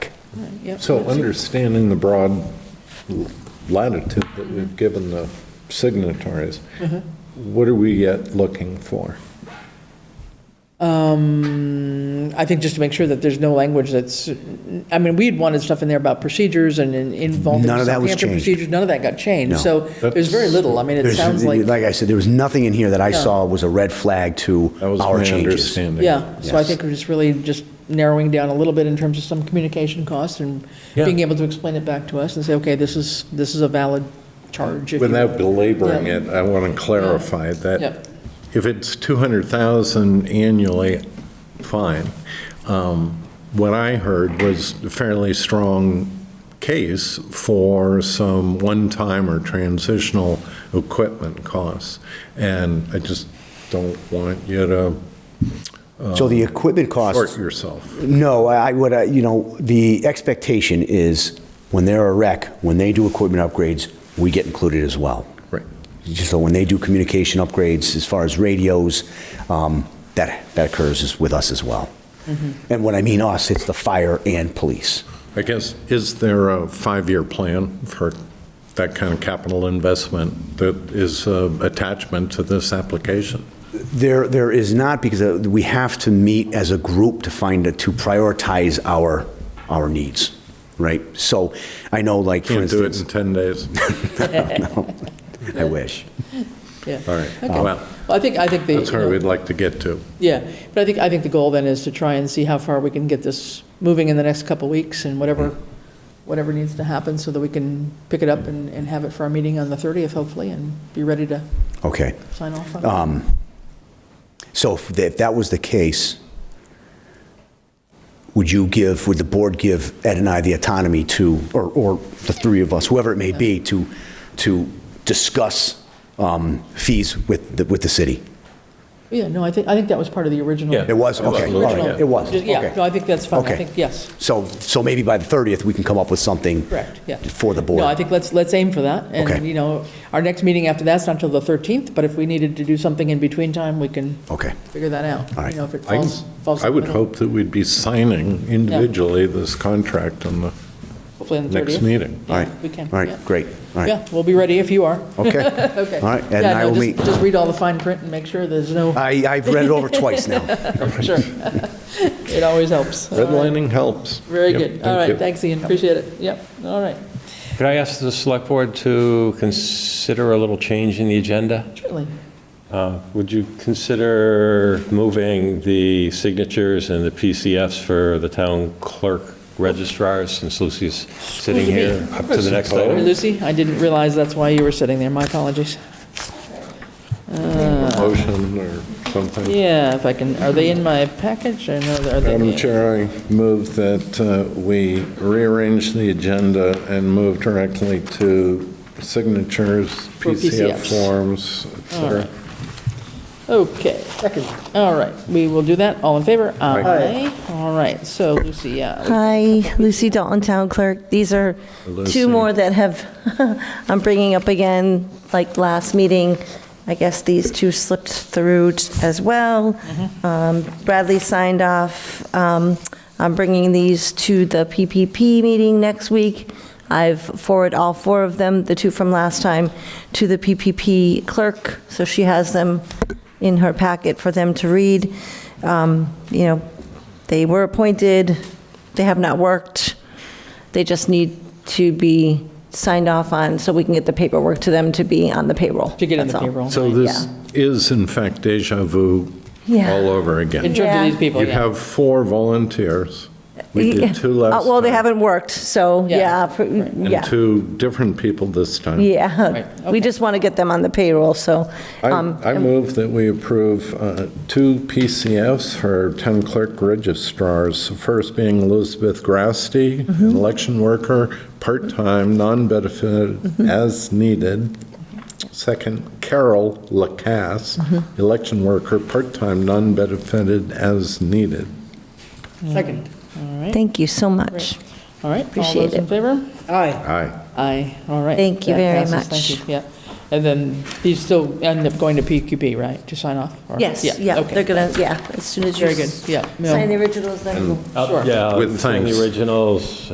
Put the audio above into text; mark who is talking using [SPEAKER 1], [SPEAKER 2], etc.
[SPEAKER 1] Yep.
[SPEAKER 2] So understanding the broad latitude that we've given the signatories,
[SPEAKER 1] Uh-huh.
[SPEAKER 2] what are we yet looking for?
[SPEAKER 1] I think just to make sure that there's no language that's, I mean, we'd wanted stuff in there about procedures and in- involving
[SPEAKER 3] None of that was
[SPEAKER 1] Southampton
[SPEAKER 3] changed.
[SPEAKER 1] procedures. None of that got changed.
[SPEAKER 3] No.
[SPEAKER 1] So there's very little. I mean, it
[SPEAKER 3] There's-
[SPEAKER 1] sounds like,
[SPEAKER 3] Like I said, there was nothing in here that I saw was a red flag to
[SPEAKER 2] That was
[SPEAKER 3] our
[SPEAKER 2] my
[SPEAKER 3] changes.
[SPEAKER 2] understanding.
[SPEAKER 1] yeah. So I
[SPEAKER 3] Yes.
[SPEAKER 1] think we're just really just narrowing down a little bit in terms of some communication costs and
[SPEAKER 2] Yeah.
[SPEAKER 1] being able to explain it back to us and say, okay, this is, this is a valid charge. if you-
[SPEAKER 2] Without belaboring
[SPEAKER 1] Yeah.
[SPEAKER 2] it, I want to clarify
[SPEAKER 1] Yep.
[SPEAKER 2] that if it's 200,000 annually, fine. Um, What I heard was a fairly strong case for some one-time or transitional equipment costs. And I just don't want you to
[SPEAKER 3] So the equipment
[SPEAKER 2] Oh. short
[SPEAKER 3] costs,
[SPEAKER 2] yourself.
[SPEAKER 3] no, I I would, uh, you know, the expectation is when they're a rec, when they do equipment upgrades, we get included as well.
[SPEAKER 2] Right.
[SPEAKER 3] So when they do communication upgrades, as far as radios, um, that, that occurs is with us as well.
[SPEAKER 1] Mm-hmm.
[SPEAKER 3] And when I mean us, it's the fire and police.
[SPEAKER 2] I guess, is there a five-year plan for that kind of capital investment that is uh, attachment to this application?
[SPEAKER 3] There, there is not, because uh, we have to meet as a group to find, a- to prioritize our, our needs, right? So I know, like, for
[SPEAKER 2] Can't do it in
[SPEAKER 3] instance,
[SPEAKER 2] 10 days.
[SPEAKER 3] I wish.
[SPEAKER 1] Yeah.
[SPEAKER 2] All right.
[SPEAKER 1] Okay.
[SPEAKER 2] Well,
[SPEAKER 1] Well, I think, I think the.
[SPEAKER 2] that's
[SPEAKER 1] you
[SPEAKER 2] where
[SPEAKER 1] know,
[SPEAKER 2] we'd like to get to.
[SPEAKER 1] Yeah, but I think, I think the goal then is to try and see how far we can get this moving in the next couple of weeks and whatever,
[SPEAKER 3] Mm-hmm.
[SPEAKER 1] whatever needs to happen so that we can pick it up and, and have it for our meeting on the 30th hopefully and be ready to
[SPEAKER 3] Okay.
[SPEAKER 1] sign off on
[SPEAKER 3] Um,
[SPEAKER 1] it.
[SPEAKER 3] So if tha- if that was the case, would you give, would the board give Ed and I the autonomy to, or, or the three of us, whoever it may be, to, to discuss um, fees with, the with the city?
[SPEAKER 1] Yeah, no, I think, I think that was part of the original.
[SPEAKER 2] Yeah.
[SPEAKER 3] It was, okay, all
[SPEAKER 2] Absolutely,
[SPEAKER 3] right, it was,
[SPEAKER 1] Just- Yeah,
[SPEAKER 3] okay.
[SPEAKER 1] no, I think that's fine. I
[SPEAKER 3] Okay.
[SPEAKER 1] think, yes,
[SPEAKER 3] So, so maybe by the 30th, we can come up with something.
[SPEAKER 1] correct, yeah.
[SPEAKER 3] For the board.
[SPEAKER 1] No, I think let's, let's aim for that. And,
[SPEAKER 3] Okay.
[SPEAKER 1] you know, our next meeting after that's not until the 13th, but if we needed to do something in between time, we can
[SPEAKER 3] Okay.
[SPEAKER 1] figure that out.
[SPEAKER 3] All right.
[SPEAKER 1] You know, if it
[SPEAKER 2] I can-
[SPEAKER 1] falls, falls. in
[SPEAKER 2] I
[SPEAKER 1] the
[SPEAKER 2] would
[SPEAKER 1] middle,
[SPEAKER 2] hope that we'd be signing individually this contract on the
[SPEAKER 1] Hopefully on the 30th.
[SPEAKER 2] next meeting.
[SPEAKER 3] All right.
[SPEAKER 1] We can,
[SPEAKER 3] All
[SPEAKER 1] yeah.
[SPEAKER 3] right, great, all right,
[SPEAKER 1] Yeah, we'll be ready if you are.
[SPEAKER 3] okay.
[SPEAKER 1] Okay.
[SPEAKER 3] All right, Ed and
[SPEAKER 1] Yeah,
[SPEAKER 3] I
[SPEAKER 1] no,
[SPEAKER 3] will
[SPEAKER 1] just-
[SPEAKER 3] meet.
[SPEAKER 1] Just read all the fine print and make sure there's no,
[SPEAKER 3] I, I've read it over twice now.
[SPEAKER 1] sure. It always helps. All right.
[SPEAKER 2] Redlining helps.
[SPEAKER 1] Very
[SPEAKER 2] Yep,
[SPEAKER 1] good. All
[SPEAKER 2] thank you.
[SPEAKER 1] right, thanks, Ian, appreciate it. Yep, all right,
[SPEAKER 4] Could I ask the select board to consider a little change in the agenda?
[SPEAKER 1] certainly.
[SPEAKER 4] Uh, Would you consider moving the signatures and the PCFs for the town clerk registrars, since Lucy's sitting
[SPEAKER 1] Excuse
[SPEAKER 4] here, up to the next
[SPEAKER 1] Hey,
[SPEAKER 4] item?
[SPEAKER 1] Lucy, I didn't realize that's why you were sitting there, my apologies.
[SPEAKER 2] Motion or something.
[SPEAKER 1] Yeah, if I can, are they in my package or no, are they?
[SPEAKER 2] Madam Chair, I move that uh, we rearrange the agenda and move directly to signatures,
[SPEAKER 1] For
[SPEAKER 2] PCF
[SPEAKER 1] PCFs.
[SPEAKER 2] forms, et cetera.
[SPEAKER 1] Okay. Second. All right, we will do that. All in favor? Aye. All right, so Lucy, yeah.
[SPEAKER 5] Hi, Lucy Dalton, Town Clerk. These are
[SPEAKER 2] Lucy.
[SPEAKER 5] two more that have, I'm bringing up again, like last meeting. I guess these two slipped through t- as well. Um, Bradley signed off. Um, I'm bringing these to the PPP meeting next week. I've forwarded all four of them, the two from last time, to the PPP clerk, so she has them in her packet for them to read. Um, You know, they were appointed, they have not worked, they just need to be signed off on so we can get the paperwork to them to be on the payroll.
[SPEAKER 1] To get on the
[SPEAKER 5] That's all.
[SPEAKER 1] payroll.
[SPEAKER 2] So this is in fact deja vu
[SPEAKER 5] Yeah.
[SPEAKER 2] all over
[SPEAKER 1] In
[SPEAKER 2] again.
[SPEAKER 1] terms of
[SPEAKER 5] Yeah.
[SPEAKER 1] these people,
[SPEAKER 2] You
[SPEAKER 1] yeah.
[SPEAKER 2] have four volunteers. We
[SPEAKER 5] Yeah.
[SPEAKER 2] did two
[SPEAKER 5] Uh,
[SPEAKER 2] last
[SPEAKER 5] Well, they
[SPEAKER 2] time,
[SPEAKER 5] haven't worked, so,
[SPEAKER 1] Yeah.
[SPEAKER 5] yeah, pr-
[SPEAKER 2] And
[SPEAKER 5] yeah,
[SPEAKER 2] two different people this time.
[SPEAKER 5] yeah.
[SPEAKER 1] Right,
[SPEAKER 5] We
[SPEAKER 1] okay.
[SPEAKER 5] just want to get them on the payroll, so,
[SPEAKER 2] I
[SPEAKER 5] um,
[SPEAKER 2] I move that we approve uh, two PCFs for town clerk registrars, the first being Elizabeth Grasty,
[SPEAKER 5] Mm-hmm.
[SPEAKER 2] an election worker, part-time, non-benefit,
[SPEAKER 5] Mm-hmm.
[SPEAKER 2] as needed. Second, Carol Lacasse,
[SPEAKER 5] Mm-hmm.
[SPEAKER 2] election worker, part-time, non-benefited, as needed.
[SPEAKER 1] Second.
[SPEAKER 5] thank you so much.
[SPEAKER 1] All right, all
[SPEAKER 5] Appreciate
[SPEAKER 1] those in
[SPEAKER 5] it.
[SPEAKER 1] favor?
[SPEAKER 2] Aye.
[SPEAKER 1] Aye, all right.
[SPEAKER 5] Thank you
[SPEAKER 1] That
[SPEAKER 5] very
[SPEAKER 1] passes. Thank
[SPEAKER 5] much.
[SPEAKER 1] you, yeah. And then these still end up going to PQP, right, to sign off? or-
[SPEAKER 5] Yes, yeah,
[SPEAKER 1] okay.
[SPEAKER 5] they're going to, yeah, as soon as you
[SPEAKER 1] Very good,
[SPEAKER 5] s-
[SPEAKER 1] yeah. no.
[SPEAKER 5] sign the originals, then we'll
[SPEAKER 4] Uh,
[SPEAKER 1] Sure.
[SPEAKER 4] Yeah,
[SPEAKER 2] With
[SPEAKER 4] sign
[SPEAKER 2] thanks.
[SPEAKER 4] the originals,